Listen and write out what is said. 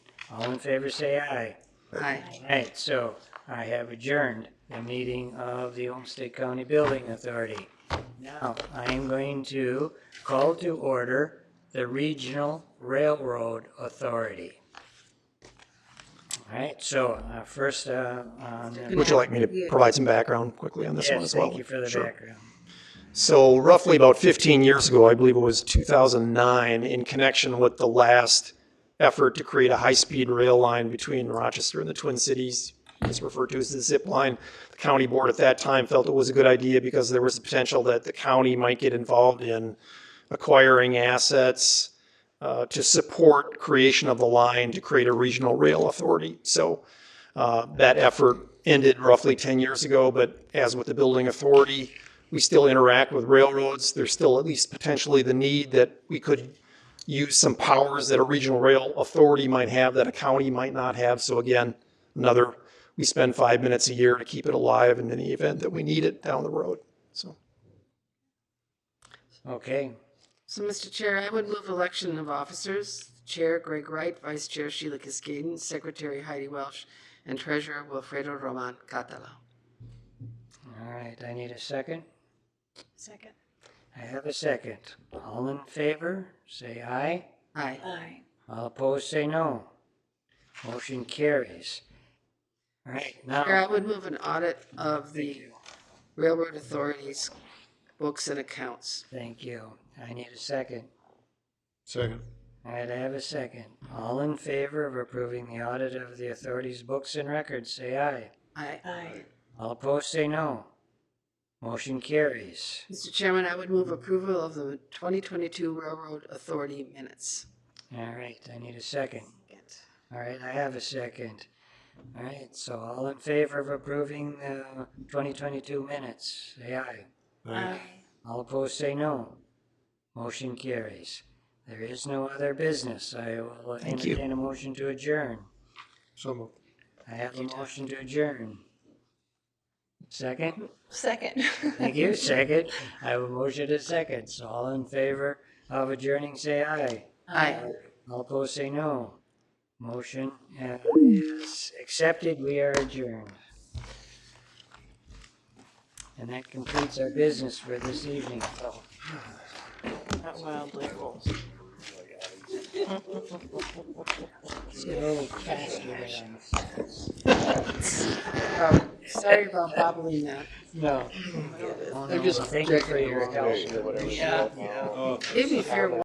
All in favor, say aye. Aye. Right, so I have adjourned the meeting of the Olmsted County Building Authority. Now, I am going to call to order the Regional Railroad Authority. All right, so uh, first, uh, on the- Would you like me to provide some background quickly on this one yes, as well? thank you for the Sure. background. So roughly about 15 years ago, I believe it was 2009, in connection with the last effort to create a high-speed rail line between Rochester and the Twin Cities, it's referred to as the zip line. The county board at that time felt it was a good idea because there was the potential that the county might get involved in acquiring assets uh, to support creation of the line to create a regional rail authority. So uh, that effort ended roughly 10 years ago, but as with the building authority, we still interact with railroads. There's still at least potentially the need that we could use some powers that a regional rail authority might have that a county might not have. So again, another, we spend five minutes a year to keep it alive in any event that we need it down the road. So Okay, So, Mr. Chair, I would move election of officers. Chair Greg Wright, Vice Chair Sheila Cascaden, Secretary Heidi Welsh, and Treasurer Wilfredo Roman Catala. all right, I need a second. Second. I have a second. All in favor, say aye. Aye. Aye. All opposed, say no. Motion carries. All right, Chair, I now, would move an audit of the Railroad Authority's books and accounts. thank you. I need a second. Second. All right, I have a second. All in favor of approving the audit of the authority's books and records, say aye. Aye. Aye. All opposed, say no. Motion carries. Mr. Chairman, I would move approval of the 2022 Railroad Authority minutes. All right, I need a second. All right, I have a second. All right, so all in favor of approving the 2022 minutes, say aye. Aye. All opposed say no. Motion carries. There is no other business. I will Thank you. entertain a motion to adjourn. So moved. I have a motion to adjourn. Second? Second. Thank you, second. I have a motion to second. So all in favor of adjourning, say aye. Aye. All opposed say no. Motion uh, is accepted. We are adjourned. And that completes our business for this evening. Oh. So- Not wildly. Let's get a little faster there. Um, Sorry about bobbling that. No. They're They're just Oh, just thank you for checking your along. help. It'd be fair